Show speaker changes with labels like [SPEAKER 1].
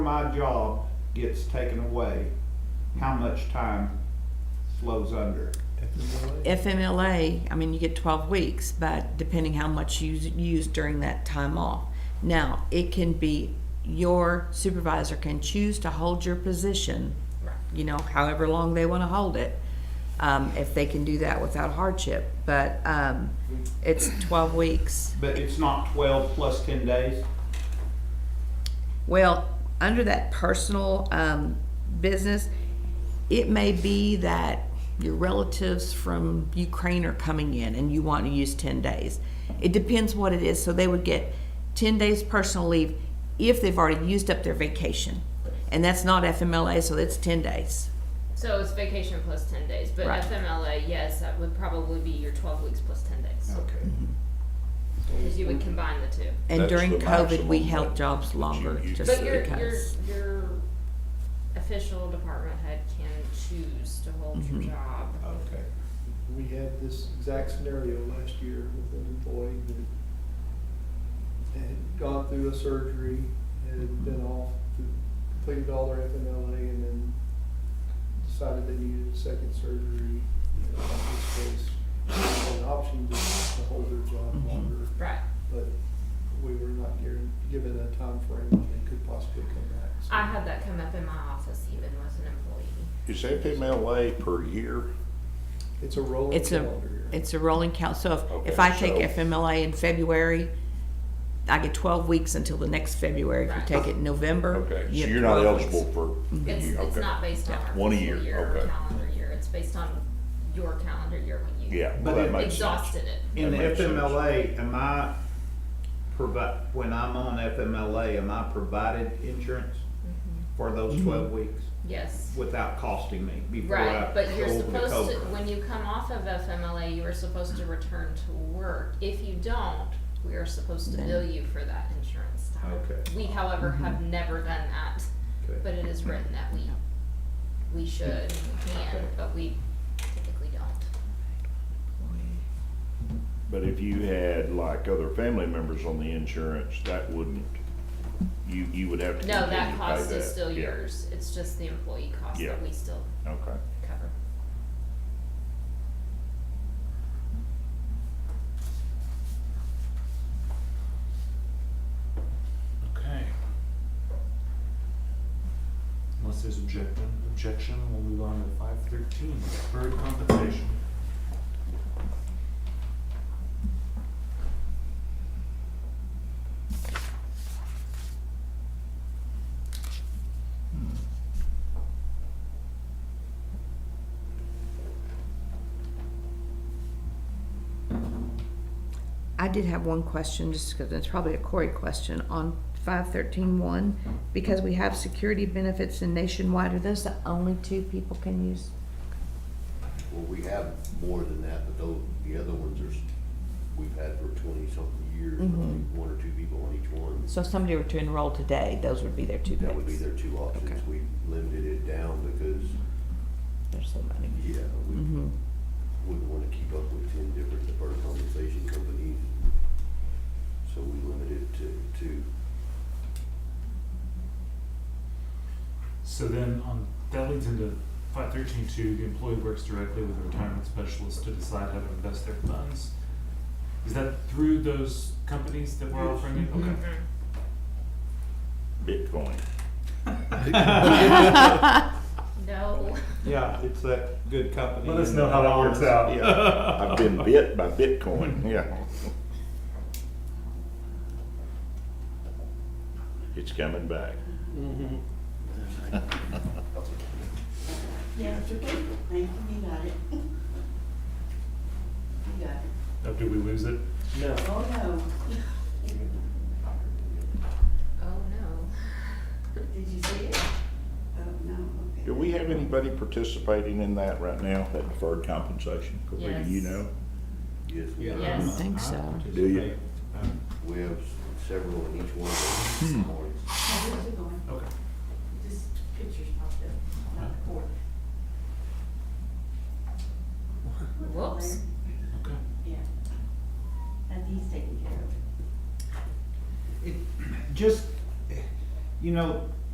[SPEAKER 1] my job gets taken away, how much time flows under?
[SPEAKER 2] FMLA, I mean, you get 12 weeks, but depending how much you s- use during that time off. Now, it can be, your supervisor can choose to hold your position, you know, however long they want to hold it, um, if they can do that without hardship. But um, it's 12 weeks.
[SPEAKER 1] But it's not twelve plus ten days?
[SPEAKER 2] Well, under that personal um, business, it may be that your relatives from Ukraine are coming in and you want to use 10 days. It depends what it is. So they would get 10 days personal leave if they've already used up their vacation. And that's not FMLA, so that's 10 days.
[SPEAKER 3] So it's vacation plus ten days, but
[SPEAKER 2] Right.
[SPEAKER 3] FMLA, yes, that would probably be your twelve weeks plus ten days,
[SPEAKER 1] Okay.
[SPEAKER 3] because you would combine the two.
[SPEAKER 2] And
[SPEAKER 4] That's
[SPEAKER 2] during
[SPEAKER 4] the
[SPEAKER 2] COVID, we
[SPEAKER 4] maximum
[SPEAKER 2] held
[SPEAKER 4] that-
[SPEAKER 2] jobs
[SPEAKER 4] that you
[SPEAKER 2] longer
[SPEAKER 4] use.
[SPEAKER 2] just
[SPEAKER 3] But your, your,
[SPEAKER 2] because.
[SPEAKER 3] your official department head can choose to hold your
[SPEAKER 4] Mm-hmm.
[SPEAKER 3] job.
[SPEAKER 4] Uh,
[SPEAKER 1] Okay.
[SPEAKER 5] We had this exact scenario last year with an employee that had gone through a surgery, had been off, completed all their FMLA, and then decided they needed a second surgery. In this case, they had an option to to hold their job longer,
[SPEAKER 3] Right.
[SPEAKER 5] but we were not guaran- given a time frame when they could possibly come back. so-
[SPEAKER 3] I had that come up in my office even with an employee.
[SPEAKER 4] Is FMLA per year?
[SPEAKER 5] It's a rolling
[SPEAKER 2] It's a,
[SPEAKER 5] calendar year.
[SPEAKER 2] it's a rolling count. So if, if
[SPEAKER 4] Okay,
[SPEAKER 2] I take
[SPEAKER 4] so-
[SPEAKER 2] FMLA in February, I get twelve weeks until the next February. If you
[SPEAKER 3] Right.
[SPEAKER 2] take it in November,
[SPEAKER 4] Okay, so
[SPEAKER 2] you have
[SPEAKER 4] you're not
[SPEAKER 2] 12 weeks.
[SPEAKER 4] eligible for. the
[SPEAKER 3] It's,
[SPEAKER 4] year,
[SPEAKER 3] it's
[SPEAKER 4] okay.
[SPEAKER 3] not based on our
[SPEAKER 4] One a
[SPEAKER 3] fiscal
[SPEAKER 4] year,
[SPEAKER 3] year or
[SPEAKER 4] okay.
[SPEAKER 3] calendar year, it's based on your calendar year when you
[SPEAKER 4] Yeah,
[SPEAKER 1] But
[SPEAKER 4] well, that
[SPEAKER 1] it-
[SPEAKER 4] makes sense.
[SPEAKER 3] exhausted it.
[SPEAKER 1] In the
[SPEAKER 4] That makes sense.
[SPEAKER 1] FMLA, am I provi- when I'm on FMLA, am I provided insurance
[SPEAKER 3] Mm-hmm.
[SPEAKER 1] for those
[SPEAKER 6] Mm-hmm.
[SPEAKER 1] twelve weeks
[SPEAKER 3] Yes.
[SPEAKER 1] without costing me before I go
[SPEAKER 3] Right, but you're
[SPEAKER 1] over the
[SPEAKER 3] supposed to,
[SPEAKER 1] COBRA?
[SPEAKER 3] when you come off of FMLA, you are supposed to return to work. If you don't, we are supposed to
[SPEAKER 2] Then-
[SPEAKER 3] bill you for that insurance time.
[SPEAKER 1] Okay.
[SPEAKER 3] We however have never done that,
[SPEAKER 1] Okay.
[SPEAKER 3] but it is written that we, we should, and we can,
[SPEAKER 1] Okay.
[SPEAKER 3] but we typically don't.
[SPEAKER 4] But if you had like other family members on the insurance, that wouldn't, you, you would have to
[SPEAKER 3] No,
[SPEAKER 4] continue to
[SPEAKER 3] that
[SPEAKER 4] pay
[SPEAKER 3] cost
[SPEAKER 4] that.
[SPEAKER 3] is still
[SPEAKER 4] Yeah,
[SPEAKER 3] yours, it's just the employee cost
[SPEAKER 4] Yeah.
[SPEAKER 3] that we still
[SPEAKER 4] Okay,
[SPEAKER 3] cover.
[SPEAKER 6] Okay. Unless there's objection, objection, we'll move on to five thirteen, deferred compensation.
[SPEAKER 2] I did have one question, just because it's probably a Corey question, on five thirteen one, because we have security benefits in nationwide, are those the only two people can use?
[SPEAKER 7] Well, we have more than that, but those, the other ones are, s- we've had for twenty-something years, I think one or two people on each one.
[SPEAKER 2] So if somebody were to enroll today, those would be their two picks.
[SPEAKER 7] That would be their two options. We limited it down because,
[SPEAKER 2] There's so many.
[SPEAKER 7] yeah, we
[SPEAKER 2] Mhm.
[SPEAKER 7] wouldn't wanna keep up with ten different deferred compensation companies. So we limited it to two.
[SPEAKER 6] So then on, that leads into five thirteen two, the employee works directly with a retirement specialist to decide how to invest their funds. Is that through those companies that we're offering it?
[SPEAKER 3] Mm-hmm.
[SPEAKER 6] Okay.
[SPEAKER 4] Bitcoin.
[SPEAKER 3] No,
[SPEAKER 1] Yeah, it's that good company.
[SPEAKER 6] Let us know how that works out.
[SPEAKER 1] Yeah.
[SPEAKER 4] I've been bit by Bitcoin, yeah. It's coming back.
[SPEAKER 8] Yeah, it's okay. Thank you, you got it. You got it.
[SPEAKER 6] Oh, did we lose it?
[SPEAKER 8] Oh, no.
[SPEAKER 3] oh no.
[SPEAKER 8] Did you see it? Oh, no, okay.
[SPEAKER 4] Do we have anybody participating in that right now, that deferred compensation? Correct, You
[SPEAKER 3] Yes.
[SPEAKER 4] know?
[SPEAKER 7] Yes, we
[SPEAKER 1] Yeah.
[SPEAKER 7] have,
[SPEAKER 3] Yes.
[SPEAKER 2] I think so.
[SPEAKER 4] Do you?
[SPEAKER 7] we have s- several in each one of those points.
[SPEAKER 8] Oh, where's it going?
[SPEAKER 6] Okay.
[SPEAKER 8] Just pictures popped up, not the board.
[SPEAKER 3] Whoops.
[SPEAKER 6] Okay.
[SPEAKER 8] Yeah. And he's taking care of
[SPEAKER 1] It,
[SPEAKER 8] it.
[SPEAKER 1] just, you know,